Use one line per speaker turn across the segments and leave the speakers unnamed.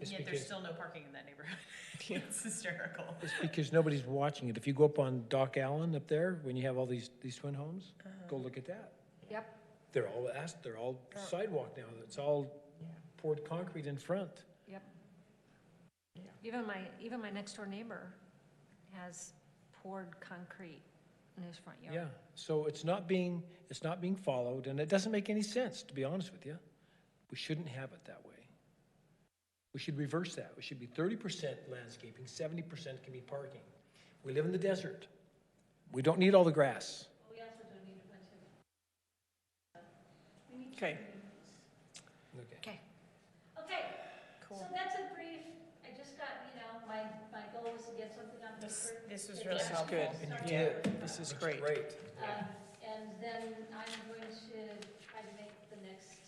It's
Yet there's
because-
still no parking in that neighborhood. It's hysterical.
Because nobody's watching it. If you go up on Dock Allen up there, when you have all these, these twin homes, go look at that.
Yep,
They're all asked, they're all sidewalk now. It's all poured concrete in front.
yep. Even my, even my next door neighbor has poured concrete in his front yard.
Yeah. So it's not being, it's not being followed and it doesn't make any sense, to be honest with you. We shouldn't have it that way. We should reverse that. We should be thirty percent landscaping, seventy percent can be parking. We live in the desert. We don't need all the grass.
uh,
Okay,
Okay.
Okay,
Okay, so
Cool.
that's a brief, I just got, you know, my, my goal was to get something on
This,
paper.
this was
It
really
just-
this is good.
helpful.
And you
Yeah,
did.
this is
Looks
great.
Great.
Um, and then I'm going to try to make the next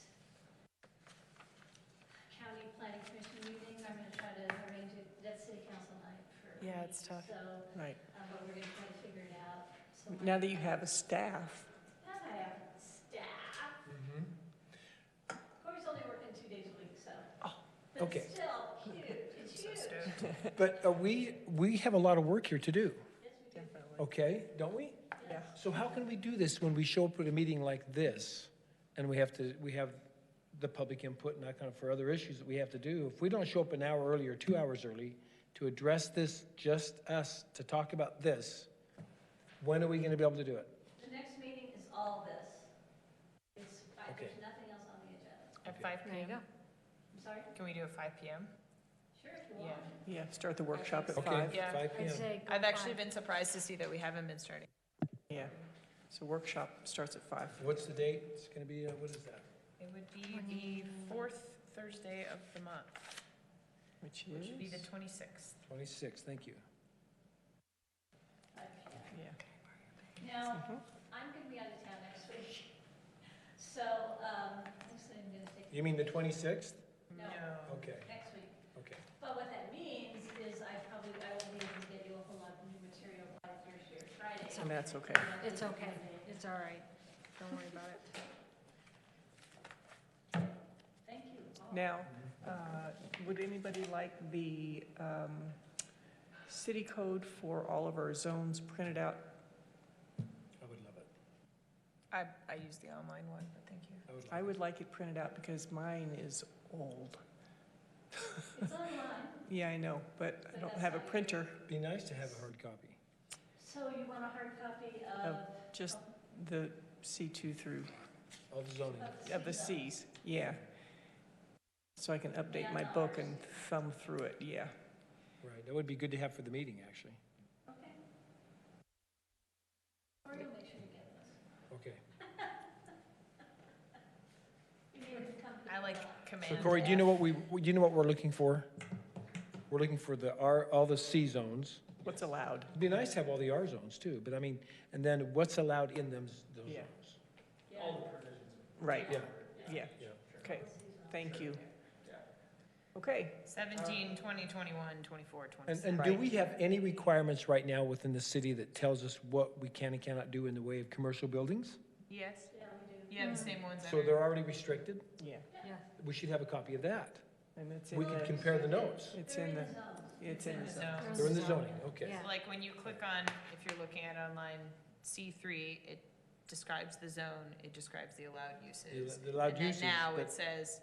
county planning commission meeting, I'm gonna try to arrange it, that's city council night for.
Yeah, it's
me.
tough.
So, um,
Right.
but we're gonna try to figure it out. So
Now that you have a staff,
Now that I have staff.
Mm-hmm.
Corey's only working two days a week, so.
Okay.
But still, huge, it's huge.
But uh, we, we have a lot of work here to do,
definitely,
okay, don't we?
yeah.
So how can we do this when we show up at a meeting like this and we have to, we have the public input and that kind of for other issues that we have to do? If we don't show up an hour early or two hours early to address this, just us, to talk about this, when are we gonna be able to do it?
The next meeting is all this. It's, I-
Okay.
there's nothing else on the agenda.
At five
there you
PM,
go.
I'm sorry?
can we do a five PM?
Sure, if you
Yeah.
want.
Yeah, start the workshop at
Okay,
five.
Yeah.
five P
I'd
M.
say go
I've actually
five.
been surprised to see that we haven't been starting.
Yeah. So workshop starts at five.
What's the date? It's gonna be, uh, what is that?
It would be the fourth Thursday of the month,
Which
which would be the
is,
twenty-sixth.
Twenty-six, thank you.
yeah.
Now,
Mhm.
I'm gonna be out of town next week. So, um, actually, I'm gonna take
You mean the twenty-sixth?
No.
Okay,
next week.
okay.
But what that means is I probably, I won't be able to get you a whole lot of new material by Thursday or Friday.
And that's okay.
It's okay, it's all right, don't worry about it.
Thank you all.
Now, uh, would anybody like the um, city code for all of our zones printed out?
I would love it.
I, I used the online one, but thank you.
I would
I
love
would like it printed out because mine is old.
It's online,
Yeah, I know, but I don't have a printer,
it. Be nice to have a hard copy.
so you want a hard copy of?
just the C2 through,
All the zoning.
of the Cs, yeah. So I can update my book and thumb through it, yeah.
Right, that would be good to have for the meeting, actually.
Okay. Or you'll make sure you get those.
Okay.
You may have to come to
I like
So
command.
Corey, do you know what we, do you know what we're looking for? We're looking for the R, all the C zones.
What's allowed?
It'd be nice to have all the R zones too, but I mean, and then what's allowed in them, those zones?
Yeah.
Yeah.
Right,
Yeah,
yeah,
yeah.
okay, thank you. Okay,
17, 20, 21, 24,
And,
26.
and do
Right.
we have any requirements right now within the city that tells us what we can and cannot do in the way of commercial buildings?
Yes,
Yeah, we do.
you have the same ones
So
everywhere.
they're already restricted?
yeah,
Yeah,
We should have a copy of that.
and it's in
We could
the,
compare the notes.
it's
They're
in the,
zones.
it's in the zone.
So-
They're in the zoning, okay.
Yeah.
So, Like when you click on, if you're looking at online, C3, it describes the zone, it describes the allowed uses.
The allowed uses,
And then now
but-
it says,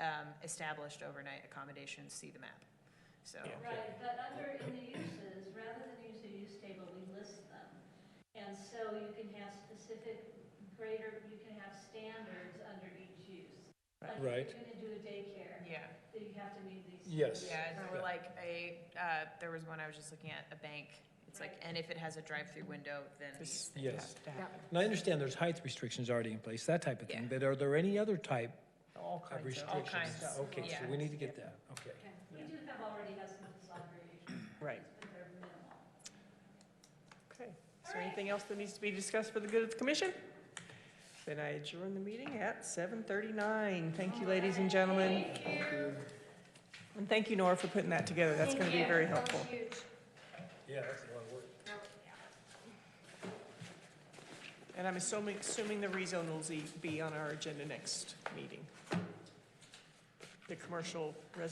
um, established overnight accommodations, see the map. So,
Yeah.
Right, but under in the uses, rather than use a use table, we list them. And so you can have specific greater, you can have standards under each use. Like
Right.
if you're gonna do a daycare,
yeah,
then you have to meet these.
Yes.
yeah, and there were
Yeah.
like a, uh, there was one I was just looking at, a bank. It's like, and if it has a drive-through window, then
This
these
Yes.
has to happen.
And I understand there's height restrictions already in place, that type of thing,
Yeah.
but are there any other type
All
of
kinds of,
All
restrictions?
kinds,
Okay, so
yeah.
we need to get that, okay.
Okay, we do have already have some of this already,
right,
but they're minimal.
okay. Is there anything else that needs to be discussed for the good of the commission? Then I adjourn the meeting at seven thirty-nine. Thank you, ladies and gentlemen. And thank you, Nora, for putting that together. That's gonna be very helpful.
Yeah, that's a lot of work.
And I'm assuming, assuming the rezone will z- be on our agenda next meeting. The commercial residential